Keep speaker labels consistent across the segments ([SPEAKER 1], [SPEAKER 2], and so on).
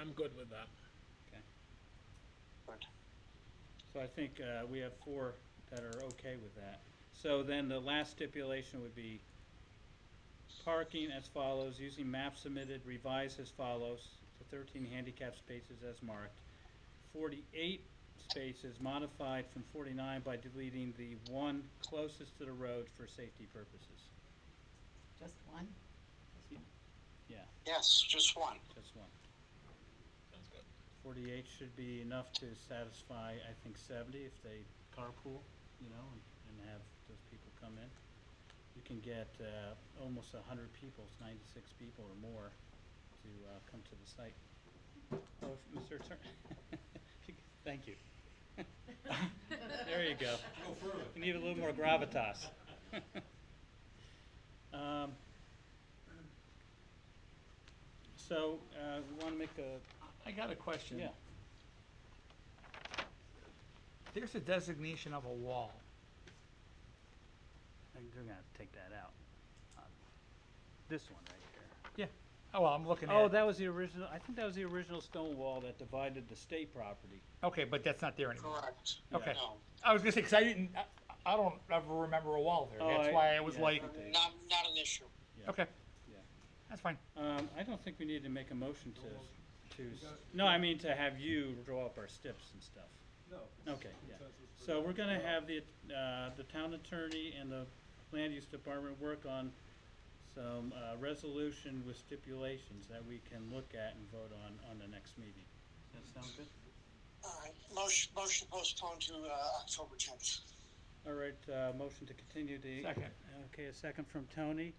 [SPEAKER 1] I'm good with that.
[SPEAKER 2] So I think uh, we have four that are okay with that. So then the last stipulation would be parking as follows, using maps submitted, revised as follows, the 13 handicap spaces as marked. 48 spaces modified from 49 by deleting the one closest to the road for safety purposes.
[SPEAKER 3] Just one?
[SPEAKER 2] Yeah,
[SPEAKER 4] Yes, just one.
[SPEAKER 2] just one.
[SPEAKER 1] Sounds good.
[SPEAKER 2] 48 should be enough to satisfy, I think, 70 if they carpool, you know, and- and have those people come in. You can get uh, almost 100 people, it's 96 people or more, to uh, come to the site. Oh, if- Mr. Attorney, thank you. There you go.
[SPEAKER 5] Go further.
[SPEAKER 2] You need a little more gravitas. Um, So, want to make a,
[SPEAKER 5] I got a question.
[SPEAKER 2] yeah,
[SPEAKER 5] There's a designation of a wall.
[SPEAKER 2] They're going to take that out. Um, This one right here.
[SPEAKER 5] Oh, well, I'm looking at.
[SPEAKER 2] Oh,
[SPEAKER 5] it.
[SPEAKER 2] that was the original, I think that was the original stone wall that divided the state property.
[SPEAKER 5] Okay, but that's not there anymore.
[SPEAKER 4] Correct.
[SPEAKER 5] Okay.
[SPEAKER 4] No,
[SPEAKER 5] I was gonna say, cause I didn't, I, I don't ever remember a wall there.
[SPEAKER 2] Oh, I-
[SPEAKER 5] That's why I was
[SPEAKER 2] yeah.
[SPEAKER 5] like,
[SPEAKER 4] not, not an issue.
[SPEAKER 5] okay.
[SPEAKER 2] Yeah.
[SPEAKER 5] That's fine.
[SPEAKER 2] Um, I don't think we need to make a motion to, to, s- no, I mean to have you draw up our steps and stuff.
[SPEAKER 6] No.
[SPEAKER 2] Okay, yeah. So we're gonna have the, uh, the town attorney and the land use department work on some, uh, resolution with stipulations that we can look at and vote on, on the next meeting. Does that sound good?
[SPEAKER 4] All right, motion, motion postponed to, uh, October tenth.
[SPEAKER 2] All right, uh, motion to continue the.
[SPEAKER 5] Second.
[SPEAKER 2] Okay, a second from Tony.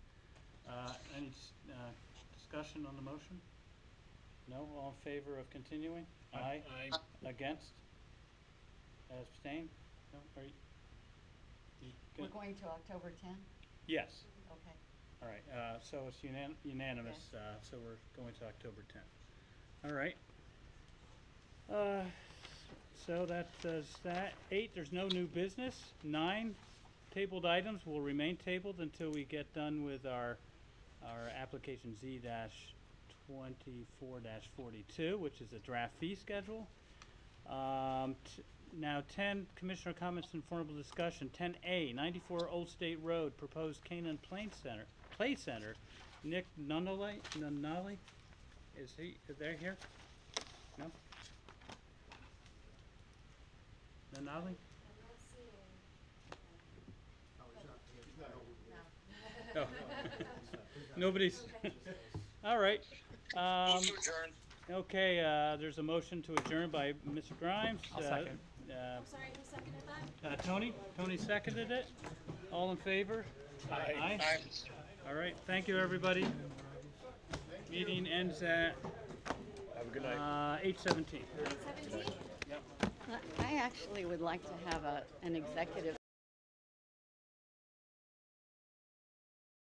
[SPEAKER 2] Uh, Any s- uh, discussion on the motion? No, all in favor of continuing? Aye.
[SPEAKER 1] I,
[SPEAKER 2] Against? Abstain? No, are you? you
[SPEAKER 3] We're
[SPEAKER 2] good?
[SPEAKER 3] going to October 10?
[SPEAKER 2] Yes,
[SPEAKER 3] Okay.
[SPEAKER 2] all right, uh, so it's unan- unanimous, uh, so we're going to October 10th. All right. Uh, So that does that. Eight, there's no new business. Nine, tabled items will remain tabled until we get done with our, our application Z dash twenty-four dash forty-two, which is a draft fee schedule. Um, t- now ten, commissioner comments and formal discussion. Ten A, ninety-four Old State Road, proposed Canaan Plain Center, Play Center. Nick Nunali, Nunali, is he, is they here? No? Nunali? No. Nobody's, all right. Um,
[SPEAKER 4] Move to adjourn.
[SPEAKER 2] okay, uh, there's a motion to adjourn by Mr. Grimes.
[SPEAKER 5] I'll
[SPEAKER 2] Uh,
[SPEAKER 5] second.
[SPEAKER 2] uh,
[SPEAKER 7] I'm sorry, who seconded that?
[SPEAKER 2] uh, Tony, Tony seconded it. All in favor? Aye.
[SPEAKER 4] All right.
[SPEAKER 2] All right, thank you, everybody. Meeting ends at,
[SPEAKER 1] have a good night.
[SPEAKER 2] uh, eight seventeen.
[SPEAKER 7] Seventeen?
[SPEAKER 3] I actually would like to have a, an executive